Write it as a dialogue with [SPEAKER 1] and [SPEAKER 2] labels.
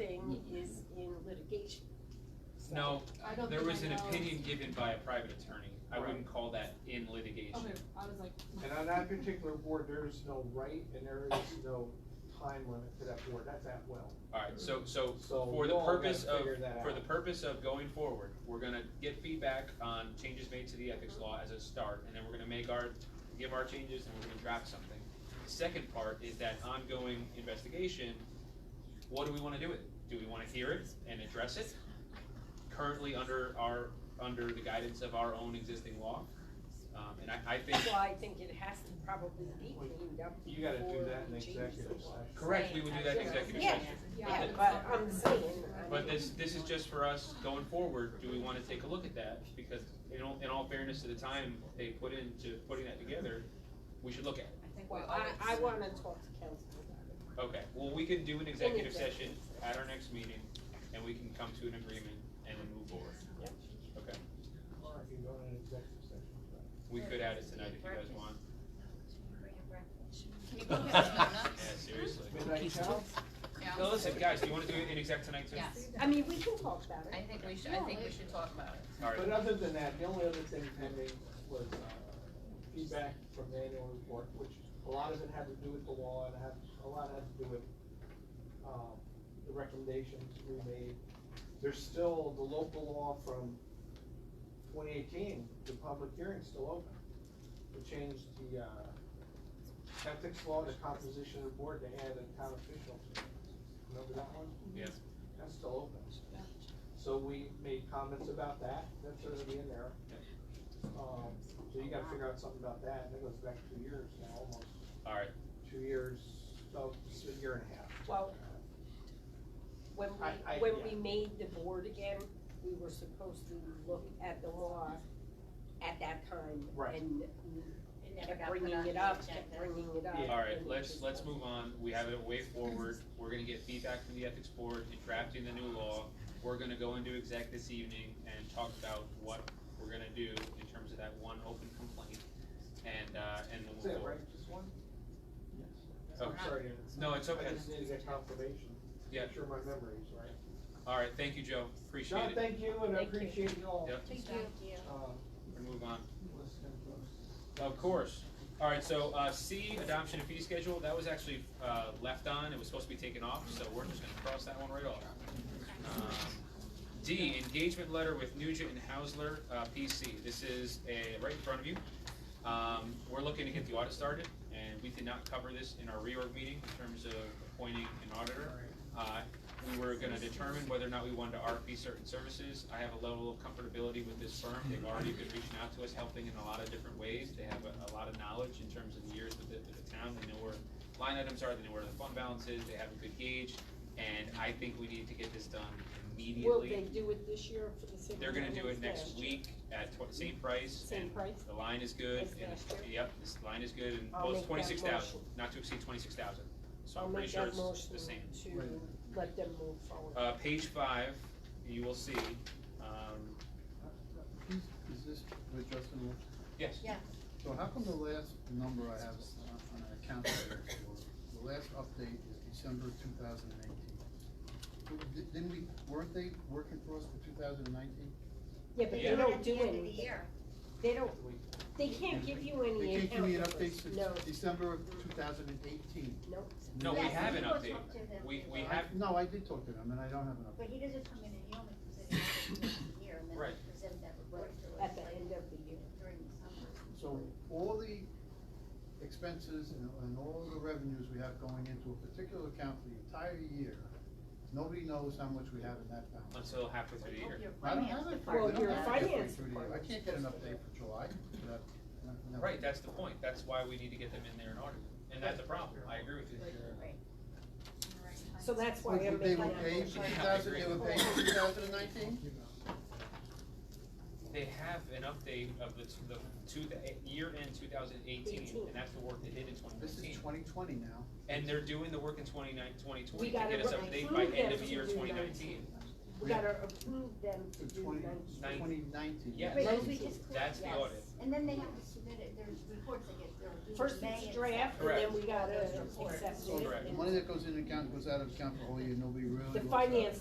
[SPEAKER 1] it is in litigation. So,
[SPEAKER 2] No,
[SPEAKER 3] I don't
[SPEAKER 2] there
[SPEAKER 3] think
[SPEAKER 2] was
[SPEAKER 3] I
[SPEAKER 2] an
[SPEAKER 3] know.
[SPEAKER 2] opinion given by a private attorney. I
[SPEAKER 4] Right.
[SPEAKER 2] wouldn't call that in litigation.
[SPEAKER 3] Okay, I was like,
[SPEAKER 4] And on that particular board, there is no right and there is no time limit to that board, that's at will.
[SPEAKER 2] Alright, so, so
[SPEAKER 4] So
[SPEAKER 2] for the
[SPEAKER 4] we'll all
[SPEAKER 2] purpose
[SPEAKER 4] gotta
[SPEAKER 2] of,
[SPEAKER 4] figure that
[SPEAKER 2] for the
[SPEAKER 4] out.
[SPEAKER 2] purpose of going forward, we're gonna get feedback on changes made to the ethics law as a start, and then we're gonna make our, give our changes and we're gonna draft something. The second part is that ongoing investigation, what do we wanna do with it? Do we wanna hear it and address it? Currently under our, under the guidance of our own existing law, um, and I, I think,
[SPEAKER 1] Well, I think it has to probably be cleaned up
[SPEAKER 4] You gotta do
[SPEAKER 1] before
[SPEAKER 4] that in
[SPEAKER 1] we change the
[SPEAKER 4] executive
[SPEAKER 1] law.
[SPEAKER 4] session.
[SPEAKER 2] correct, we would do that in executive
[SPEAKER 1] Yeah.
[SPEAKER 2] session.
[SPEAKER 3] yeah.
[SPEAKER 1] But I'm saying, I
[SPEAKER 2] But
[SPEAKER 1] mean,
[SPEAKER 2] this, this is just for us going forward, do we wanna take a look at that? Because in all, in all fairness to the time they put into putting that together, we should look at it.
[SPEAKER 1] well, I, I wanna talk to council about it.
[SPEAKER 2] Okay, well, we can do an executive session at our next meeting, and we can come to an agreement and then move forward. Okay,
[SPEAKER 4] Or if you go to an executive session. right.
[SPEAKER 2] we could add it tonight if you guys want,
[SPEAKER 5] Can you go get some
[SPEAKER 2] yeah,
[SPEAKER 5] donuts?
[SPEAKER 2] seriously.
[SPEAKER 4] Midnight Chow?
[SPEAKER 5] Yeah.
[SPEAKER 2] No, listen, guys, do you wanna do it in exec tonight too?
[SPEAKER 5] Yes.
[SPEAKER 1] I mean, we can talk about
[SPEAKER 5] I
[SPEAKER 1] it.
[SPEAKER 5] think we should, I think we should talk about it.
[SPEAKER 2] Alright,
[SPEAKER 4] But other than that, the only other thing pending was uh, feedback from the annual report, which a lot of it had to do with the law and had, a lot had to do with um, the recommendations we made. There's still the local law from twenty eighteen, the public hearing's still open. We changed the uh, ethics law, the composition of the board, they added town officials. Remember that one?
[SPEAKER 2] yes,
[SPEAKER 4] That's still open. So we made comments about that, that's gonna be in there. Um, so you gotta figure out something about that, and that goes back two years now, almost,
[SPEAKER 2] alright,
[SPEAKER 4] two years, oh, it's a year and a half.
[SPEAKER 1] Well, when
[SPEAKER 4] I- I-
[SPEAKER 1] we, when
[SPEAKER 4] yeah.
[SPEAKER 1] we made the board again, we were supposed to look at the law at that time.
[SPEAKER 4] Right.
[SPEAKER 1] And
[SPEAKER 6] It never
[SPEAKER 1] kept
[SPEAKER 6] got put
[SPEAKER 1] bringing
[SPEAKER 6] on
[SPEAKER 1] it
[SPEAKER 6] the
[SPEAKER 1] up, kept
[SPEAKER 6] agenda.
[SPEAKER 1] bringing it up.
[SPEAKER 4] Yeah.
[SPEAKER 2] alright,
[SPEAKER 1] and we
[SPEAKER 2] let's,
[SPEAKER 1] just
[SPEAKER 2] let's
[SPEAKER 1] don't-
[SPEAKER 2] move on, we have a way forward, we're gonna get feedback from the ethics board in drafting the new law. We're gonna go into exec this evening and talk about what we're gonna do in terms of that one open complaint. And, uh, and then
[SPEAKER 4] That's
[SPEAKER 2] we'll
[SPEAKER 4] it,
[SPEAKER 2] go.
[SPEAKER 4] right, just one?
[SPEAKER 2] Oh,
[SPEAKER 4] I'm sorry,
[SPEAKER 2] No, it's
[SPEAKER 4] I
[SPEAKER 2] okay,
[SPEAKER 4] just need to get confirmation.
[SPEAKER 2] yeah,
[SPEAKER 4] Make sure my memory's right.
[SPEAKER 2] alright, thank you, Joe, appreciate
[SPEAKER 4] John,
[SPEAKER 2] it,
[SPEAKER 4] thank you, and I
[SPEAKER 1] Thank you.
[SPEAKER 4] appreciate you all,
[SPEAKER 2] Yep.
[SPEAKER 5] Thank
[SPEAKER 6] you.
[SPEAKER 4] um,
[SPEAKER 2] we're gonna move on.
[SPEAKER 4] listening to us.
[SPEAKER 2] Of course. All right, so uh, C, adoption and fee schedule, that was actually uh, left on, it was supposed to be taken off, so we're just gonna cross that one right off. Um, D, engagement letter with Nugent and Hausler, uh, PC, this is a, right in front of you. Um, We're looking to get the audit started, and we did not cover this in our reorg meeting in terms of appointing an auditor. Uh, We were gonna determine whether or not we wanted to RFP certain services. I have a level of comfortability with this firm. They've already been reaching out to us, helping in a lot of different ways. They have a, a lot of knowledge in terms of years with the, with the town. They know where line items are, they know where the fund balance is, they have a good gauge. And I think we need to get this done immediately.
[SPEAKER 1] Will they do it this year for the same?
[SPEAKER 2] They're gonna
[SPEAKER 1] reason
[SPEAKER 2] do it
[SPEAKER 1] as
[SPEAKER 2] next
[SPEAKER 1] last year?
[SPEAKER 2] week at tw- same price.
[SPEAKER 1] Same
[SPEAKER 2] and
[SPEAKER 1] price?
[SPEAKER 2] The line is good,
[SPEAKER 1] As
[SPEAKER 2] and,
[SPEAKER 1] last
[SPEAKER 2] it's- yep, this line is good, and
[SPEAKER 1] I'll
[SPEAKER 2] both
[SPEAKER 1] make that
[SPEAKER 2] twenty-six thousand,
[SPEAKER 1] motion.
[SPEAKER 2] not to exceed twenty-six thousand. So
[SPEAKER 1] I'll
[SPEAKER 2] I'm pretty
[SPEAKER 1] make
[SPEAKER 2] sure
[SPEAKER 1] that
[SPEAKER 2] it's
[SPEAKER 1] motion
[SPEAKER 2] the same.
[SPEAKER 1] to let them move forward.
[SPEAKER 2] Uh, page five, you will see, um,
[SPEAKER 7] Is this adjustable?
[SPEAKER 2] yes.
[SPEAKER 6] Yeah.
[SPEAKER 7] So how come the last number I have on, on an account here for, the last update is December two thousand and eighteen? Didn't we, weren't they working for us for two thousand and nineteen?
[SPEAKER 1] Yeah, but
[SPEAKER 2] Yeah.
[SPEAKER 1] they don't do anything. They don't,
[SPEAKER 4] We-
[SPEAKER 1] they can't give you
[SPEAKER 7] They
[SPEAKER 1] any
[SPEAKER 7] can't give me an update
[SPEAKER 1] account numbers. No,
[SPEAKER 7] since December of two thousand and eighteen.
[SPEAKER 1] no.
[SPEAKER 2] No, we
[SPEAKER 6] Yes,
[SPEAKER 2] have an
[SPEAKER 6] you will
[SPEAKER 2] update.
[SPEAKER 6] talk to them.
[SPEAKER 2] We, we have,
[SPEAKER 7] No, I did talk to them and I don't have an update.
[SPEAKER 6] But he doesn't come in and he only presents it once a year and then
[SPEAKER 2] Right.
[SPEAKER 6] he presents that report to us
[SPEAKER 1] At the end of the year.
[SPEAKER 6] during the summer.
[SPEAKER 7] So all the expenses and, and all the revenues we have going into a particular account for the entire year, nobody knows how much we have in that balance.
[SPEAKER 2] until halfway through the year.
[SPEAKER 6] Hope your
[SPEAKER 7] I don't
[SPEAKER 6] finance
[SPEAKER 7] have it for,
[SPEAKER 1] Well,
[SPEAKER 7] I
[SPEAKER 6] department
[SPEAKER 7] don't
[SPEAKER 1] your
[SPEAKER 7] have it
[SPEAKER 6] does.
[SPEAKER 7] halfway
[SPEAKER 1] finance
[SPEAKER 7] through the year. I
[SPEAKER 1] department.
[SPEAKER 7] can't get an update for July, but, uh, no.
[SPEAKER 2] Right, that's the point, that's why we need to get them in there and audit, and that's a problem, I agree with you.
[SPEAKER 6] Right.
[SPEAKER 1] So that's why
[SPEAKER 7] But
[SPEAKER 1] I'm
[SPEAKER 7] They
[SPEAKER 1] making
[SPEAKER 7] were
[SPEAKER 1] that
[SPEAKER 7] paid
[SPEAKER 1] motion.
[SPEAKER 7] for two thousand, they were paid for two thousand and nineteen?
[SPEAKER 2] They have an update of the, t- the two, the year end two thousand eighteen,
[SPEAKER 1] Eighteen.
[SPEAKER 2] and that's the work they did in twenty
[SPEAKER 7] This
[SPEAKER 2] nineteen.
[SPEAKER 7] is twenty twenty now.
[SPEAKER 2] And they're doing the work in twenty nine, twenty
[SPEAKER 1] We
[SPEAKER 2] twenty to
[SPEAKER 1] gotta
[SPEAKER 2] get us
[SPEAKER 1] re-
[SPEAKER 2] update by
[SPEAKER 1] approve
[SPEAKER 2] end
[SPEAKER 1] them
[SPEAKER 2] of
[SPEAKER 1] to
[SPEAKER 2] year
[SPEAKER 1] do
[SPEAKER 2] twenty
[SPEAKER 1] 19.
[SPEAKER 2] nineteen.
[SPEAKER 1] We gotta approve them to
[SPEAKER 7] For
[SPEAKER 1] do
[SPEAKER 7] twenty,
[SPEAKER 1] nineteen.
[SPEAKER 2] Nine-
[SPEAKER 7] twenty nineteen.
[SPEAKER 2] Yeah.
[SPEAKER 6] Right, 'cause we
[SPEAKER 2] That's-
[SPEAKER 6] just
[SPEAKER 2] that's the
[SPEAKER 6] yes.
[SPEAKER 2] audit.
[SPEAKER 6] And then they have to submit it, there's reports that get, they're due
[SPEAKER 1] First
[SPEAKER 6] in May.
[SPEAKER 1] it's
[SPEAKER 6] and
[SPEAKER 1] draft, and
[SPEAKER 6] September.
[SPEAKER 1] then we gotta
[SPEAKER 6] Those reports.
[SPEAKER 1] accept
[SPEAKER 7] So
[SPEAKER 1] it.
[SPEAKER 2] Correct.
[SPEAKER 7] the money that goes in account goes out of account for all year, nobody really.
[SPEAKER 1] The
[SPEAKER 7] looks at it.
[SPEAKER 1] finance